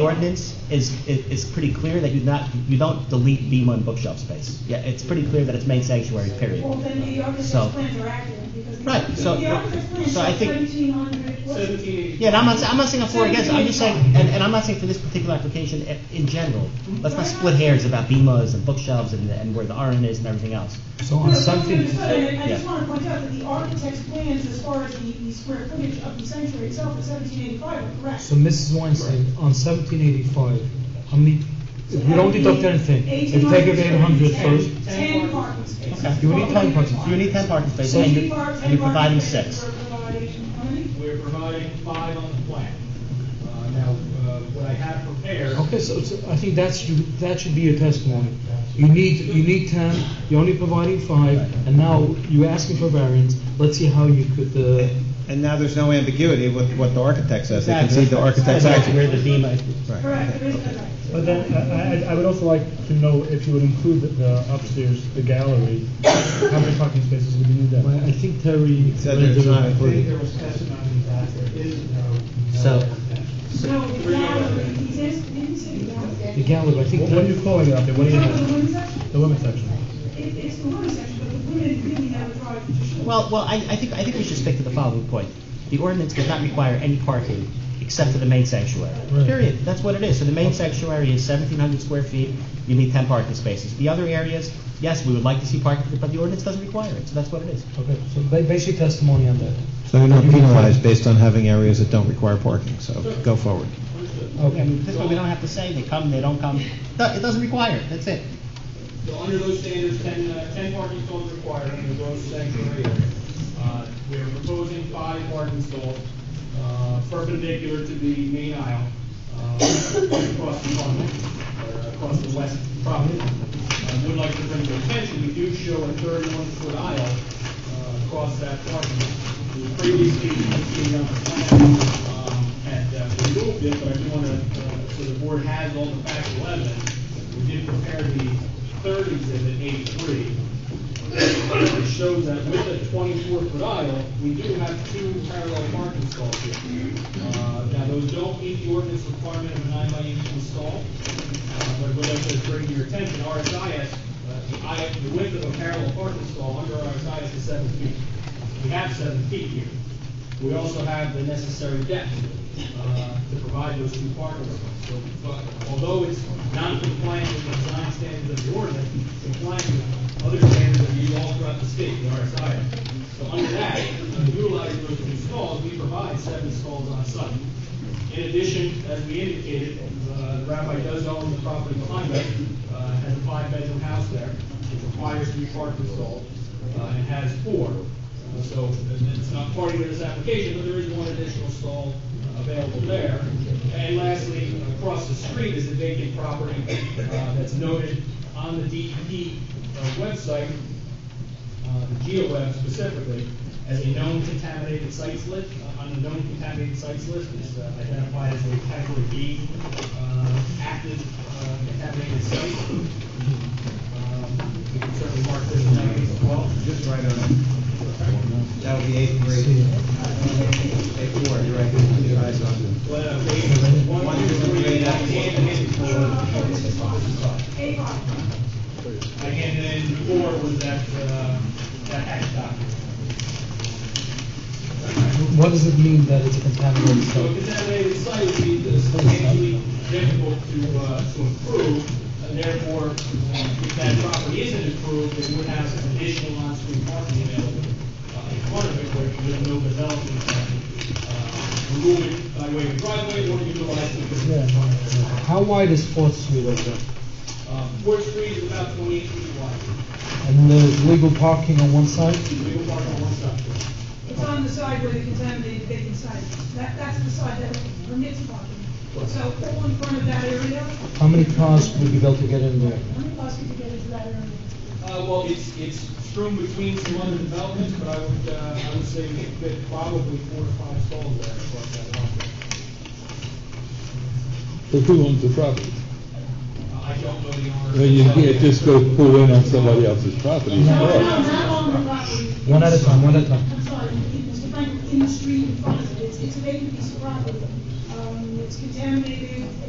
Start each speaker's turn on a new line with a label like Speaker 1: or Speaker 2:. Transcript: Speaker 1: ordinance is, is, is pretty clear that you not, you don't delete B one bookshelf space. Yeah, it's pretty clear that it's main sanctuary, period.
Speaker 2: Well, then the
Speaker 1: So-
Speaker 2: architect's plans are accurate, because. the-
Speaker 1: Right, so-
Speaker 2: The architect's plans
Speaker 1: so I
Speaker 2: show
Speaker 1: think-
Speaker 2: 1700 what's-
Speaker 1: Yeah, and I'm not, I'm not saying I'm for or against, I'm just saying, and, and I'm not saying for this particular application i- in general. Let's not split hairs about BMAs and bookshelves and, and where the RN is and everything else.
Speaker 3: So
Speaker 2: No,
Speaker 3: on
Speaker 2: no,
Speaker 3: something,
Speaker 2: no, no, no, I just
Speaker 1: yeah.
Speaker 2: want to point out that the architect's plans, as far as the, the square footage of the sanctuary itself, is seventeen eighty-five, correct?
Speaker 3: so Mrs. Weinstein, on seventeen eighty-five, how many, if we don't deduct anything, if you take away 800 first,
Speaker 2: Ten parking spaces.
Speaker 1: Okay.
Speaker 3: You need 10 parking spaces.
Speaker 1: You need ten parking spaces,
Speaker 2: So
Speaker 1: and
Speaker 2: you
Speaker 1: you're, and you're providing six.
Speaker 2: We're providing, how many?
Speaker 4: We're providing five on the plan. Uh, Now, uh, what I have prepared,
Speaker 3: Okay, so, so I think that's, you- that should be your testimony. You need, you need ten, you're only providing five, and now you're asking for variance, let's see how you could, uh,
Speaker 5: And now there's no ambiguity with what the architect says. They can see the architect's
Speaker 1: That's
Speaker 5: action.
Speaker 1: where the BMA is.
Speaker 5: Right.
Speaker 2: Correct, there is no right.
Speaker 6: But then,
Speaker 3: uh,
Speaker 6: I, I- I would also like to know if you would include the- the upstairs, the gallery, how many parking spaces would you need
Speaker 3: well,
Speaker 6: there?
Speaker 3: I think Terry.
Speaker 5: Said there's not
Speaker 4: I think
Speaker 5: included.
Speaker 4: there was testimony that there is no.
Speaker 1: So-
Speaker 2: No, the gallery, he's, asked- he didn't say the gallery.
Speaker 3: The gallery, I think.
Speaker 6: What what are you calling it up there, what do you
Speaker 2: No, the
Speaker 6: have?
Speaker 2: women's section,
Speaker 6: The women's section?
Speaker 2: it, it's the women's section, but the women really have a drive to show.
Speaker 1: Well, well, I, I think, I think we should stick to the following point. The ordinance does not require any parking except for the main sanctuary.
Speaker 3: Right.
Speaker 1: Period. That's what it is. So the main sanctuary is seventeen hundred square feet, you need ten parking spaces. The other areas, yes, we would like to see parking, but the ordinance doesn't require it, so that's what it is.
Speaker 3: Okay, so ba- basic testimony on that.
Speaker 5: So you're not penalized based on having areas that don't require parking, so go forward.
Speaker 1: I
Speaker 3: Okay,
Speaker 1: mean, This way we don't have to say they come, they don't come. Do- It doesn't require it, that's it.
Speaker 4: So under those standards, ten, uh, ten parking stalls required under those sanctuary area. Uh, we are proposing five parking stalls, uh, perpendicular to the main aisle, uh, across the front, or across the west property. I would like to bring to attention, we do show a thirty-one foot aisle, uh, across that parking. We Previously, you can see on the plan, um, had uh, removed it, but I do want to, so the board has all the factual evidence. We did prepare the third exhibit, eighty-three. It shows that with a twenty-four foot aisle, we do have two parallel parking stalls here. Uh, Now, those don't meet the ordinance requirement of a nine by eighteen stall, uh, but we'd like to bring to your attention, RSIS, uh, the aisle- the width of a parallel parking stall under RSIS is seven feet. We have seven feet here. We also have the necessary depth uh, to provide those two parking spots. So but although it's non-compliant with the design standards of the ordinance, it's compliant with other standards that we use all throughout the state, the RSI. So under that, uh, utilizing those two stalls, we provide seven stalls on site. In addition, as we indicated, uh, the rabbi does own the property behind us, uh, has a five-bedroom house there, it requires three parking stalls, uh, and has four. Uh, So, and it's not part of this application, but there is one additional stall available there. And lastly, across the street is a vacant property uh, that's noted on the DEP uh, website, uh, the GeoWeb specifically, as a known contaminated sites list, uh, on the known contaminated sites list, it's uh, identified as a category B uh, active uh, contaminated site. Um, We can certainly mark this as negative as well.
Speaker 5: Just right That would be eight three. Eight four, you're right. Keep your eyes on.
Speaker 4: But, uh, we- one, two, three, and I handed in
Speaker 2: Eight parking.
Speaker 4: I handed in four was that, uh, that hash document.
Speaker 3: what does it mean that it's a contaminated
Speaker 4: So a
Speaker 3: site?
Speaker 4: contaminated site would be substantially difficult to, uh, to improve, and therefore, if that property isn't improved, it would have some additional on-street parking available uh, in front of it, where you have no development. uh, Remove it by way of driveway, or utilize it as a front of the lot.
Speaker 3: How wide is Fourth Street over there?
Speaker 4: Uh, Fourth Street is about twenty-eight feet wide,
Speaker 3: And there's legal parking on one side?
Speaker 4: we will park on one side.
Speaker 2: It's on the side where the contaminated vacant side, that, that's the side that permits parking. So all in front of that area,
Speaker 3: How many cars would be able to get in there?
Speaker 2: how many cars could you get into that area?
Speaker 4: Uh, well, it's, it's strewn between some other developments, but I would, uh, I would say we could fit probably four to five stalls there across that lot.
Speaker 7: But who owns the property?
Speaker 4: Uh, I don't know the owner.
Speaker 7: Well, you can't just go pull in on somebody else's property. and
Speaker 2: No, no,
Speaker 7: park.
Speaker 2: not on the property.
Speaker 3: One at a time, one at a time.
Speaker 2: I'm sorry, in- Mr. Frank, in the street in front of it, it's, it's a vacant piece of property. Um, it's contaminated,